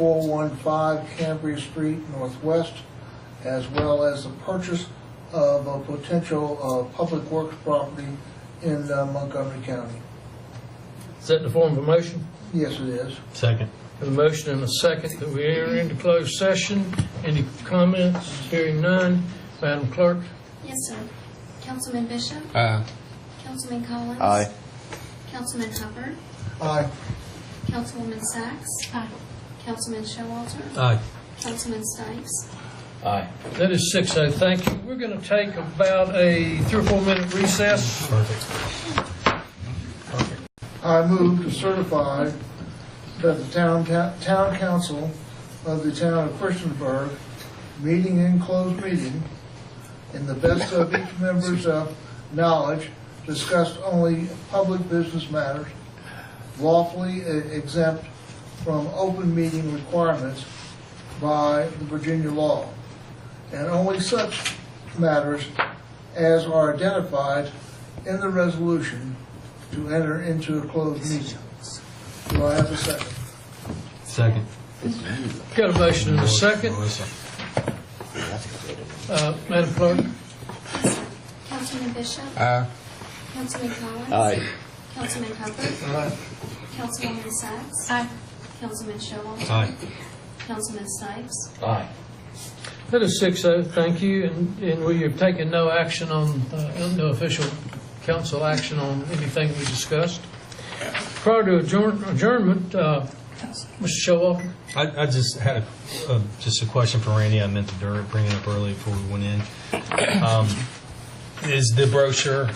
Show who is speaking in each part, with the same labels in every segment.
Speaker 1: 415 Cambria Street Northwest, as well as the purchase of a potential uh, public works property in uh, Montgomery County.
Speaker 2: Is that in the form of a motion?
Speaker 1: Yes, it is.
Speaker 3: Second.
Speaker 2: Have a motion and a second that we enter into closed session. Any comments? Hearing none. Madam Clerk?
Speaker 4: Yes, sir. Councilman Bishop?
Speaker 3: Aye.
Speaker 4: Councilman Collins?
Speaker 5: Aye.
Speaker 4: Councilman Hubbard?
Speaker 1: Aye.
Speaker 4: Councilwoman Sacks? Aye. Councilman Showalter?
Speaker 3: Aye.
Speaker 4: Councilman Stipes?
Speaker 3: Aye.
Speaker 2: That is six oh, thank you. We're going to take about a three or four minute recess.
Speaker 3: Perfect.
Speaker 1: I move to certify that the town, ca- town council of the town of Christiansburg, meeting in closed meeting, in the best of each member's uh, knowledge, discussed only public business matters lawfully e- exempt from open meeting requirements by the Virginia law, and only such matters as are identified in the resolution to enter into a closed meeting. Do I have a second?
Speaker 3: Second.
Speaker 2: Got a motion and a second.
Speaker 3: Melissa.
Speaker 2: Uh, Madam Clerk?
Speaker 4: Yes, sir. Councilman Bishop?
Speaker 3: Aye.
Speaker 4: Councilman Collins?
Speaker 5: Aye.
Speaker 4: Councilman Hubbard?
Speaker 2: Aye.
Speaker 4: Councilwoman Sacks? Aye. Councilman Showalter?
Speaker 3: Aye.
Speaker 4: Councilman Stipes?
Speaker 3: Aye.
Speaker 2: That is six oh, thank you. And, and we have taken no action on, uh, no official council action on anything we discussed. Prior to adjourn- adjournment, uh, Mr. Showalter?
Speaker 3: I, I just had a, uh, just a question for Randy. I meant to dur- bring it up early before we went in. Um, Is the brochure,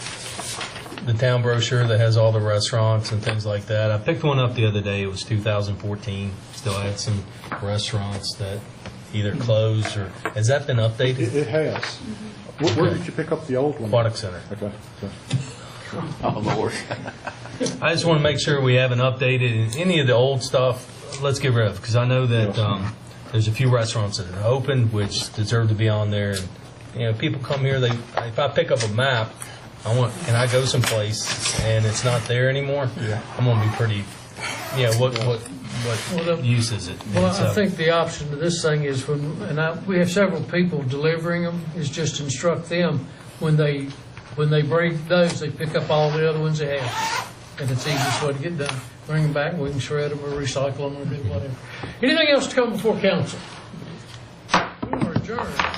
Speaker 3: the town brochure that has all the restaurants and things like that? I picked one up the other day. It was 2014. Still had some restaurants that either closed or, has that been
Speaker 6: It
Speaker 3: updated?
Speaker 6: it has. Where where did you pick up the old one?
Speaker 3: Aquatic Center.
Speaker 6: Okay. so-
Speaker 5: Oh, Lord.
Speaker 3: I just want to make sure we haven't updated and any of the old stuff. Let's get rid of because I know that um, there's a few restaurants that are open which deserve to be on there. And, you know, people come here. They if I pick up a map, I want and I go someplace and it's not there anymore. Yeah. I'm gonna be pretty. Yeah. What what what
Speaker 2: Well, the-
Speaker 3: use is it?
Speaker 2: Well,
Speaker 3: And so-
Speaker 2: I think the option to this thing is when, and I, we have several people delivering them, is just instruct them when they, when they bring those, they pick up all the other ones they have. And it's the easiest way to get done. Bring them back, we can shred them or recycle them or do whatever. Anything else to come before council? We are adjourned.